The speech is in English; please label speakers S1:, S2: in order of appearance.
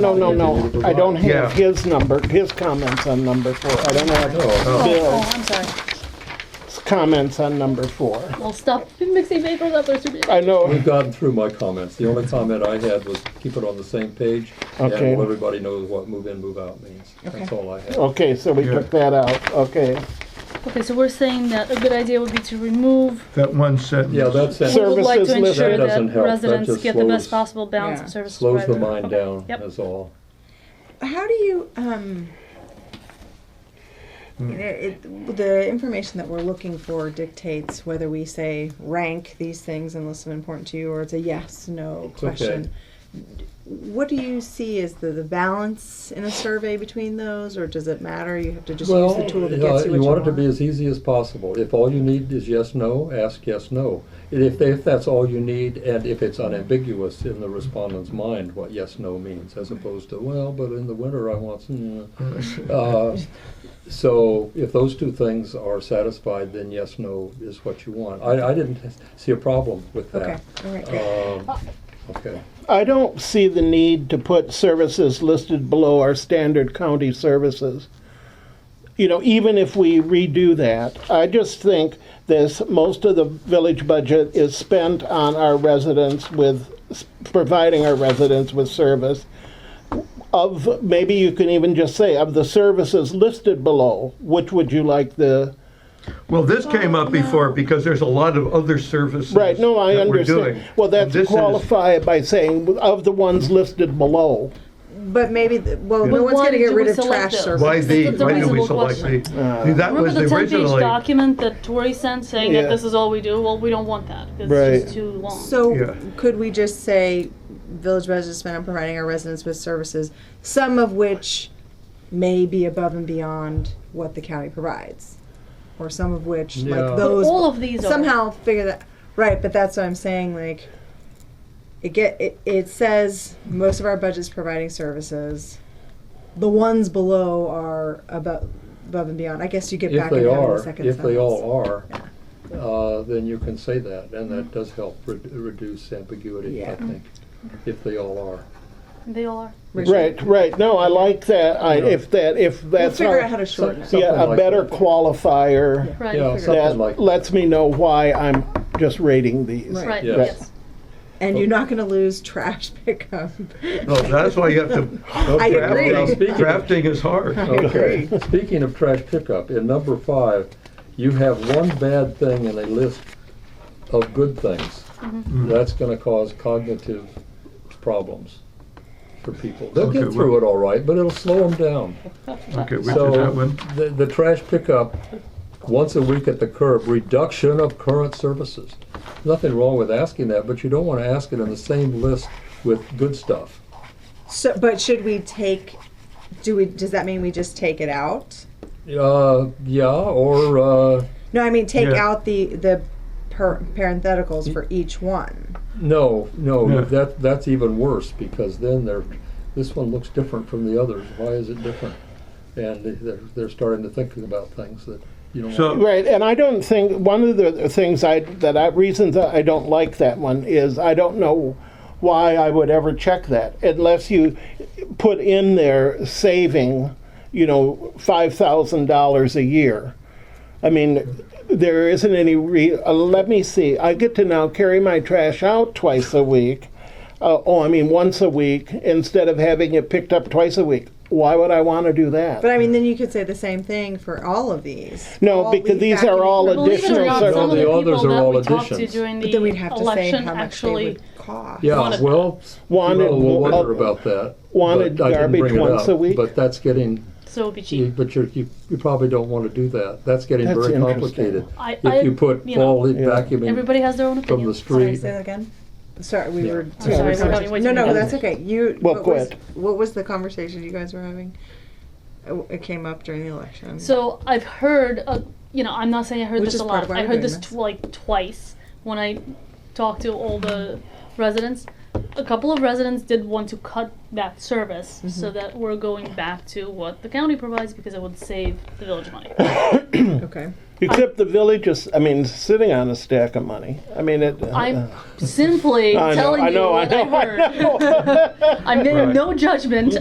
S1: No, no, no, I don't have
S2: Yeah.
S1: his number, his comments on number four. I don't have
S3: Oh,
S1: Bill's
S3: I'm sorry.
S1: comments on number four.
S3: Well, stop mixing papers up, there's too many.
S1: I know,
S4: We've gotten through my comments. The only comment I had was keep it on the same page.
S1: Okay.
S4: And let everybody knows what move in, move out means. That's all I had.
S1: okay, so we took that out, okay.
S3: Okay, so we're saying that a good idea would be to remove,
S2: That one sentence.
S4: Yeah, that's
S3: we
S4: it.
S3: would like to
S1: Services listed.
S3: ensure
S4: That doesn't
S3: that
S4: help. That
S3: residents
S4: just
S3: get the best
S4: slows-
S3: possible balance of services
S4: Slows the
S3: provided.
S4: mind down,
S3: Yep.
S4: that's all.
S5: How do you, um, it, it- the information that we're looking for dictates whether we say rank these things and list them important to you, or it's a yes, no
S4: It's okay.
S5: question. What do you see as the, the balance in a survey between those, or does it matter? You have to just use the tool
S4: Well,
S5: that gets you
S4: uh,
S5: what you
S4: want it
S5: want.
S4: to be as easy as possible. If all you need is yes, no, ask yes, no. And If, if that's all you need, and if it's unambiguous in the respondent's mind what yes, no means, as opposed to, well, but in the winter I want some. uh, So if those two things are satisfied, then yes, no is what you want. I, I didn't see a problem with
S5: Okay,
S4: that.
S5: all right, great.
S4: Um, Okay.
S1: I don't see the need to put services listed below our standard county services. You know, even if we redo that, I just think this, most of the village budget is spent on our residents with, providing our residents with service. Of, maybe you can even just say, of the services listed below, which would you like the,
S2: Well, this came up before because there's a lot of other services.
S1: right, no, I
S2: that we're
S1: understand.
S2: doing.
S1: Well, that's
S2: This is-
S1: qualified by saying, of the ones listed below.
S5: But maybe, the- well,
S2: But
S5: no one's
S3: why
S5: gonna
S3: do
S5: get
S3: we
S5: rid of
S3: select
S5: trash
S3: those?
S5: service.
S2: Why
S3: That's
S2: the,
S3: a
S2: why do we
S3: reasonable
S2: select the?
S3: question.
S2: See, that was
S3: Remember the ten page
S2: originally.
S3: document that Tori sent saying
S1: Yeah.
S3: that this is all we do? Well, we don't want that, 'cause it's just too long.
S2: Yeah.
S5: So could we just say village residents spend on providing our residents with services, some of which may be above and beyond what the county provides? Or some of which,
S4: Yeah.
S5: like
S3: But
S5: those,
S3: all of these are.
S5: somehow figure that, right, but that's what I'm saying, like, it get, it, it says most of our budget's providing services. The ones below are above, above and beyond. I guess you get
S4: If
S5: back in
S4: they
S5: having the
S4: are,
S5: second sentence.
S4: if they all are, uh, then you can say that, and that does help re- reduce ambiguity, I
S5: Mm-hmm. Yeah.
S4: think, if they all are.
S3: They all are.
S1: Right, right. No, I like that. I, if that, if
S5: We'll
S1: that's
S5: figure out how
S1: not,
S5: to shorten it.
S4: Some-
S1: yeah,
S4: something
S1: a
S4: like
S1: better
S4: that.
S1: qualifier
S3: Right.
S4: Yeah,
S3: figure it out.
S4: something like,
S1: that lets me know why I'm just rating these.
S5: Right.
S3: Right,
S4: yes.
S3: yes.
S5: And you're not gonna lose trash pickup.
S2: No, that's why you have to.
S4: I
S5: agree.
S4: Now, speaking of-
S2: Drafting is hard.
S4: Okay. Speaking of trash pickup, in number five, you have one bad thing in a list of good things.
S5: Mm-hmm.
S4: That's gonna cause cognitive problems for people. They'll get
S2: Okay,
S4: through it all right, but it'll slow them down.
S2: Okay, which is
S4: So,
S2: that one?
S4: The, the trash pickup, once a week at the curb, reduction of current services. Nothing wrong with asking that, but you don't wanna ask it in the same list with good stuff.
S5: So, but should we take? Do we? Does that mean we just take it out?
S4: Uh, yeah, or, uh,
S5: No, I mean take
S2: Yeah.
S5: out the the per, parentheticals for each one.
S4: No,
S2: Yeah.
S4: no, that, that's even worse, because then they're, this one looks different from the others, why is it different? And they- they're, they're starting to think about things that you don't want.
S2: So,
S1: Right, and I don't think, one of the things I, that I, reasons that I don't like that one is I don't know why I would ever check that unless you put in there saving, you know, five thousand dollars a year. I mean, there isn't any re, uh, let me see, I get to now carry my trash out twice a week. Uh, oh, I mean, once a week instead of having it picked up twice a week. Why would I want to do that?
S5: But I mean, then you could say the same thing for all of these.
S1: No,
S5: All
S1: because
S5: leave
S1: these
S5: back
S1: are
S5: in-
S1: all
S5: But
S3: Believe it or
S1: Additional
S3: not,
S1: service.
S3: some of the
S4: All the others
S3: people
S4: are
S3: that
S4: all
S3: we talked to
S4: additions.
S3: during
S5: then we'd
S3: the
S5: have to say
S3: election
S5: how much they
S3: actually
S5: would cost.
S4: Yeah,
S3: wanted-
S4: well,
S1: wanted-
S4: people will wonder about that.
S1: wanted
S4: but I didn't bring
S1: garbage
S4: it
S1: once
S4: up,
S1: a week?
S4: But that's getting,
S3: So it'd be cheap.
S4: you- but you're, you, you probably don't wanna do that, that's getting
S1: That's
S4: very
S1: interesting.
S4: complicated.
S3: I- I-
S4: If you put
S3: you know,
S4: all the
S1: Yeah.
S4: vacuuming
S3: Everybody has their own
S4: from
S3: opinion.
S4: the street,
S5: Say that again. Sorry, we
S4: Yeah.
S5: were.
S3: I'm sorry, we're having way
S5: no,
S3: too
S5: no,
S3: many
S5: that's okay. You.
S1: Well,
S5: what
S1: go
S5: was,
S1: ahead.
S5: What was the conversation you guys were having? It it came up during the election.
S3: So I've heard, uh, you know, I'm not saying I heard
S5: Which
S3: this
S5: is
S3: a
S5: part
S3: lot.
S5: of why
S3: I
S5: we're
S3: heard
S5: doing
S3: this
S5: this.
S3: tw- like twice when I talked to all the residents. a couple of residents did want to cut that service
S5: Mm-hmm.
S3: so that we're going back to what the county provides because it would save the village money.
S1: Hmm.
S5: Okay.
S1: Except the village is, I mean, sitting on a stack of money. I mean, it.
S3: I'm simply
S1: I know,
S3: telling
S1: I know,
S3: you
S1: I
S3: what I
S1: know, I
S3: heard.
S1: know.
S3: I'm getting no judgment.